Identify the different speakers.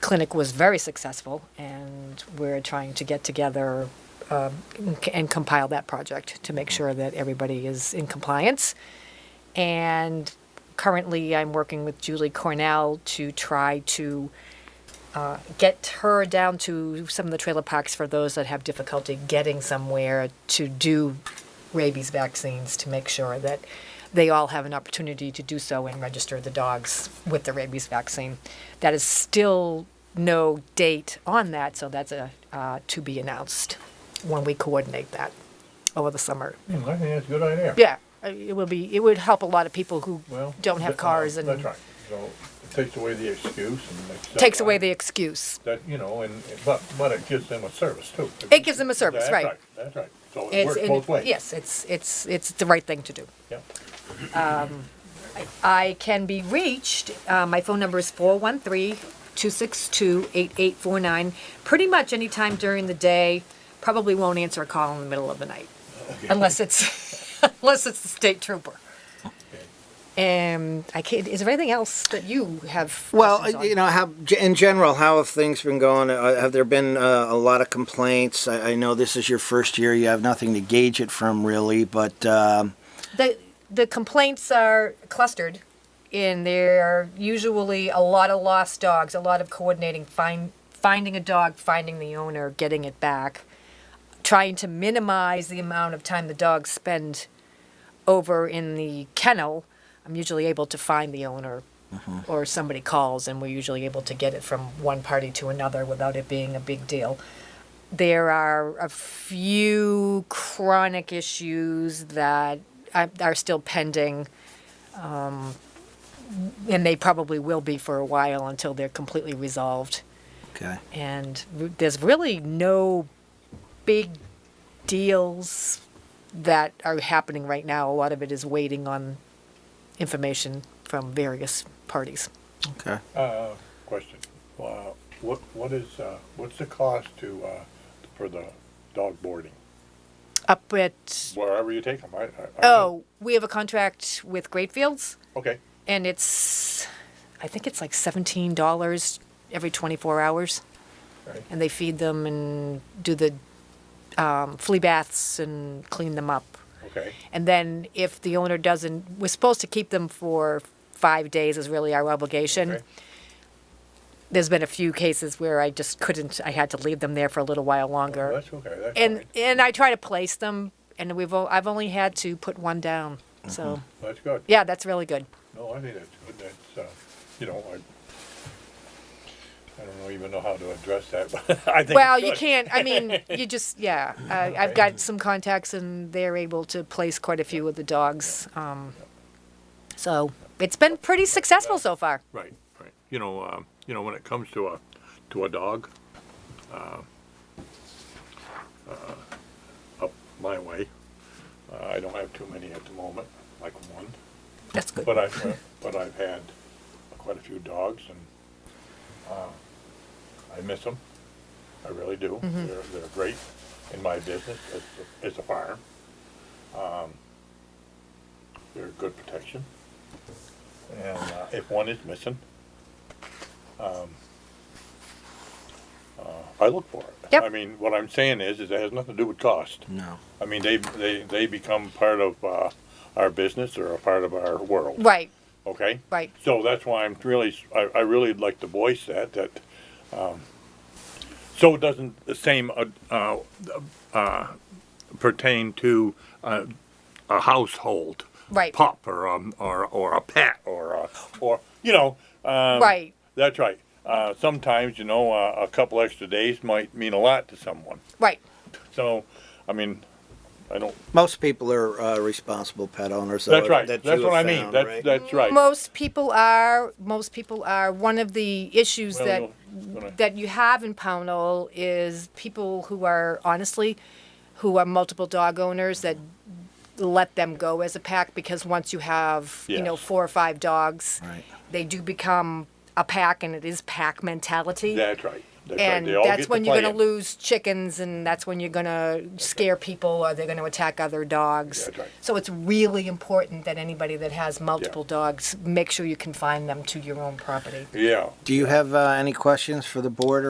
Speaker 1: clinic was very successful, and we're trying to get together um, and compile that project to make sure that everybody is in compliance. And currently, I'm working with Julie Cornell to try to uh, get her down to some of the trailer parks for those that have difficulty getting somewhere to do rabies vaccines to make sure that they all have an opportunity to do so and register the dogs with the rabies vaccine. That is still no date on that, so that's a uh, to be announced when we coordinate that over the summer.
Speaker 2: Hmm, I think that's a good idea.
Speaker 1: Yeah, uh, it will be. It would help a lot of people who
Speaker 2: Well.
Speaker 1: don't have
Speaker 2: th- uh,
Speaker 1: cars and
Speaker 2: That's right. So it takes away the excuse and. makes that
Speaker 1: takes away
Speaker 2: right.
Speaker 1: the excuse.
Speaker 2: That, you know, and, but, but it gives them a service too.
Speaker 1: It gives them a service,
Speaker 2: That's
Speaker 1: right.
Speaker 2: That's right. So it works
Speaker 1: it-
Speaker 2: both ways.
Speaker 1: Yes, it's it's it's the right thing to do.
Speaker 2: Yep.
Speaker 1: I can be reached. Uh, my phone number is 413 262 8849. Pretty much any time during the day. Probably won't answer a call in the middle of the night unless it's unless it's the state trooper. And I can't, is there anything else that you have? questions
Speaker 3: Well,
Speaker 1: on?
Speaker 3: you know, how in general, how have things been going? Uh, Have there been uh, a lot of complaints? I, I know this is your first year; you have nothing to gauge it from, really. But um,
Speaker 1: the the complaints are clustered and they're usually a lot of lost dogs a lot of coordinating find, finding a dog finding the owner getting it back trying to minimize the amount of time the dogs spend over in the kennel i'm usually able to find the owner or somebody calls and we're usually able to get it from one party to another without it being a big deal there are a few chronic issues that are are still pending, um, and they probably will be for a while until they're completely resolved.
Speaker 3: okay,
Speaker 1: And r- there's really no big deals that are happening right now. A lot of it is waiting on information from various parties.
Speaker 3: okay.
Speaker 2: Uh, question. Uh, what, what is, uh, what's the cost to, uh, for the dog boarding?
Speaker 1: Up at
Speaker 2: Wherever you take them, I, I. I don't know.
Speaker 1: oh, we have a contract with Great Fields.
Speaker 2: Okay.
Speaker 1: and it's I think it's like seventeen dollars every twenty four hours,
Speaker 2: Right.
Speaker 1: and they feed them and do the um, flea baths and clean them up.
Speaker 2: Okay.
Speaker 1: And then if the owner doesn't, we're supposed to keep them for five days is really our obligation.
Speaker 2: Okay.
Speaker 1: There's been a few cases where I just couldn't. I had to leave them there for a little while longer,
Speaker 2: That's okay. That's
Speaker 1: and
Speaker 2: fine.
Speaker 1: and I try to place them, and we've o- I've only had to put one down. So
Speaker 2: That's good.
Speaker 1: yeah, that's really good.
Speaker 2: No, I think that's good, that's, uh, you know, I, I don't know, even know how to address that, but I think
Speaker 1: Well,
Speaker 2: it's
Speaker 1: you
Speaker 2: good.
Speaker 1: can't. I mean, you just yeah. Uh, I've got some contacts, and they're able to place quite a few of the dogs. Um, so it's been pretty successful so far.
Speaker 2: Right, right, you know, um, you know, when it comes to a, to a dog, uh, uh, up my way, uh, I don't have too many at the moment, like one,
Speaker 1: That's good.
Speaker 2: but I've, uh, but I've had quite a few dogs and, uh, I miss them, I really do. They're, they're great in my business, it's, a- it's a farm. Um, They're good protection. And uh, if one is missing, um, uh, I look for it.
Speaker 1: Yep.
Speaker 2: I mean, what I'm saying is, is it has nothing to do with cost.
Speaker 3: No.
Speaker 2: I mean, they, they, they become part of uh, our business or a part of our world.
Speaker 1: Right,
Speaker 2: Okay?
Speaker 1: right.
Speaker 2: So that's why I'm really, I, I really like to voice that, that, um, so it doesn't the same, uh, uh, uh, pertain to, uh, a household.
Speaker 1: Right.
Speaker 2: Pup or, um, or, or a pet or, a- or, you know, um.
Speaker 1: Right.
Speaker 2: That's right. Uh, sometimes, you know, uh, a couple extra days might mean a lot to someone.
Speaker 1: Right.
Speaker 2: So, I mean, I don't,
Speaker 3: Most people are uh, responsible pet owners. though,
Speaker 2: that's right.
Speaker 3: that
Speaker 2: That's
Speaker 3: you
Speaker 2: what I
Speaker 3: have
Speaker 2: mean.
Speaker 3: found,
Speaker 2: That's,
Speaker 3: right?
Speaker 2: that's right.
Speaker 1: Most people are. Most people are. One of the issues
Speaker 2: Well,
Speaker 1: that
Speaker 2: you'll- gonna-
Speaker 1: that you have in Pownell is people who are honestly, who are multiple dog owners that let them go as a pack because once you have you know
Speaker 2: Yes.
Speaker 1: four or five dogs,
Speaker 3: Right.
Speaker 1: they do become a pack and it is pack mentality.
Speaker 2: That's right. That's right,
Speaker 1: And
Speaker 2: they all get
Speaker 1: that's
Speaker 2: to
Speaker 1: when you're
Speaker 2: play
Speaker 1: gonna
Speaker 2: it.
Speaker 1: lose chickens, and that's when you're gonna scare people, or they're gonna attack other dogs.
Speaker 2: That's right.
Speaker 1: So it's really important that anybody that has multiple dogs, make sure you confine them to your own property.
Speaker 2: Yeah.
Speaker 3: Do you have uh, any questions for the board